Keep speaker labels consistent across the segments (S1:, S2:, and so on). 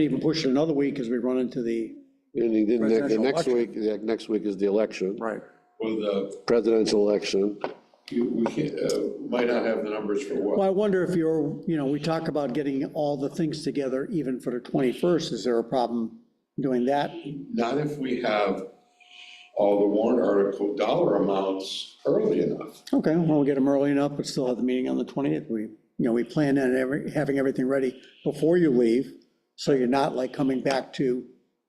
S1: Even push it another week as we run into the.
S2: And he didn't, the
S1: Presidential
S2: next week, the next week is the election,
S1: Right.
S3: With, uh,
S2: presidential election.
S3: you, we can't, uh, might not have the numbers for what?
S1: Well, I wonder if you're, you know, we talk about getting all the things together even for the 21st. Is there a problem doing that?
S3: Not if we have all the warrant article dollar amounts early enough.
S1: Okay, well, we'll get them early enough, but still have the meeting on the 20th. We, you know, we plan on every, having everything ready before you leave, so you're not like coming back to,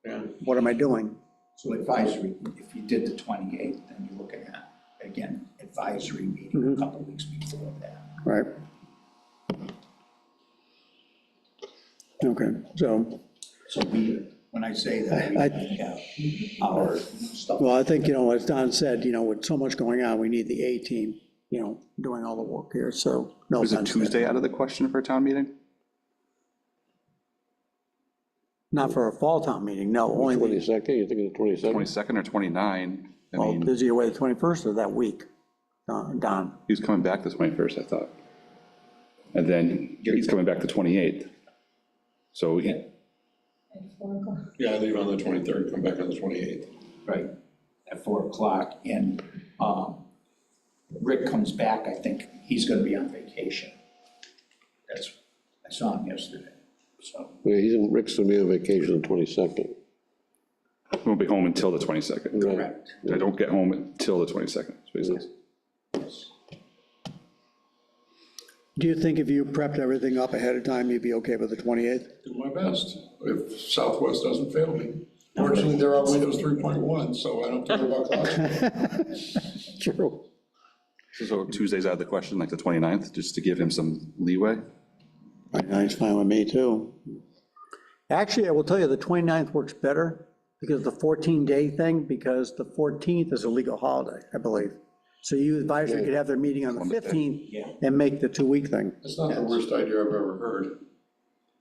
S3: And
S1: what am I doing?
S4: So advisory, if you did the 28th, then you're looking at, again, advisory meeting a couple weeks before that.
S1: Right? Okay, so,
S4: So we, when I say that,
S1: I-
S4: we have our stuff.
S1: well, I think, you know, as Don said, you know, with so much going on, we need the A team, you know, doing all the work here, so. no
S5: Is a
S1: offense to that.
S5: Tuesday out of the question for a town meeting?
S1: Not for a fall town meeting, no, only the,
S2: Twenty-second, you think it's twenty-second?
S5: 22nd or 29? I
S1: well,
S5: mean,
S1: busy away the 21st of that week, Uh, Don.
S5: he was coming back the 21st, I thought. And then he's coming back the 28th. So he-
S3: Yeah, I leave on the twenty-third, come back on the twenty-eighth.
S4: Right, at 4 o'clock, and um, Rick comes back, I think he's gonna be on vacation. That's, I saw him yesterday, so.
S2: He's in, Rick's gonna be on vacation on twenty-second.
S5: he won't be home until the 22nd.
S4: Correct.
S5: I don't get home until the 22nd. is what he says.
S1: Do you think if you prepped everything up ahead of time, you'd be okay with the 28th?
S3: Do my best, if Southwest doesn't fail me. Fortunately, they're on Windows three point one, so I don't care about clouds.
S1: True.
S5: So Tuesday's out of the question, like the 29th, just to give him some leeway?
S1: That's fine with me, too. Actually, I will tell you, the 29th works better because the 14-day thing, because the 14th is a legal holiday, I believe. So you advisory could have their meeting on the 15th and make the two-week thing.
S3: That's not the worst idea I've ever heard.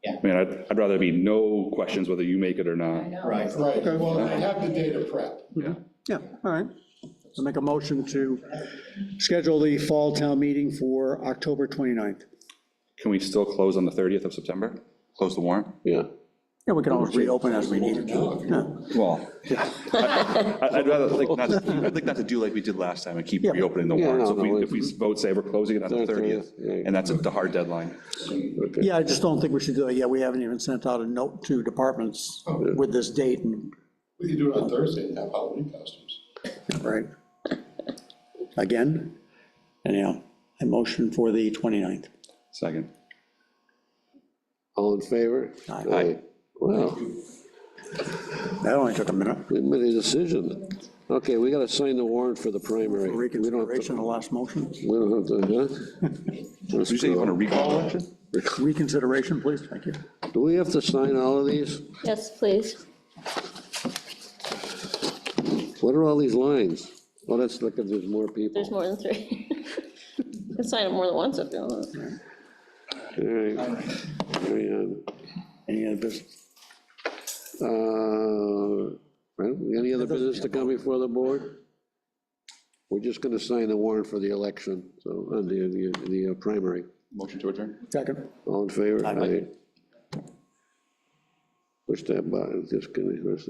S5: I mean, I'd, I'd rather be no questions whether you make it or
S6: I
S5: not.
S6: know.
S4: Right.
S3: Right, well, I have the data prep.
S5: Yeah.
S1: Yeah, all right. So make a motion to schedule the fall town meeting for October 29th.
S5: Can we still close on the 30th of September? Close the warrant?
S2: Yeah.
S1: Yeah, we can always reopen as we need it to.
S3: Now, if you-
S5: Well, I- I'd rather like not, to- I'd like not to do like we did last time and keep
S1: Yeah.
S5: reopening the
S2: Yeah,
S5: warrant.
S2: no,
S5: So if
S2: no,
S5: we, if we vote, say we're closing it on the
S2: Thirtieth,
S5: 30th,
S2: yeah.
S5: and that's the hard deadline.
S1: Yeah, I just don't think we should do it. Yeah, we haven't even sent out a note to departments with this date and,
S3: We can do it on Thursday and have Halloween costumes.
S1: right? Again, anyhow, I motion for the 29th.
S5: Second.
S2: All in favor?
S1: Aye.
S2: Wow,
S1: That only took a minute.
S2: we made a decision. Okay, we gotta sign the warrant for the primary. We don't have to-
S1: Reconsideration of the last motion.
S2: We don't have to, huh? Let's
S5: Did you say you
S2: go.
S5: want to recall election?
S1: Reconsideration, please, thank you.
S2: Do we have to sign all of these?
S6: Yes, please.
S2: What are all these lines? Oh, that's, look, there's more people.
S6: There's more than three. You can sign up more than once if you want.
S2: All right, carry on.
S1: Any other business?
S2: Uh, well, Any other business to come before the board? We're just going to sign the warrant for the election, so, uh, the, the, the uh, primary.
S5: Motion to adjourn?
S1: Second.
S2: All in favor?
S1: Aye.
S2: Aye. Push that button, just gonna,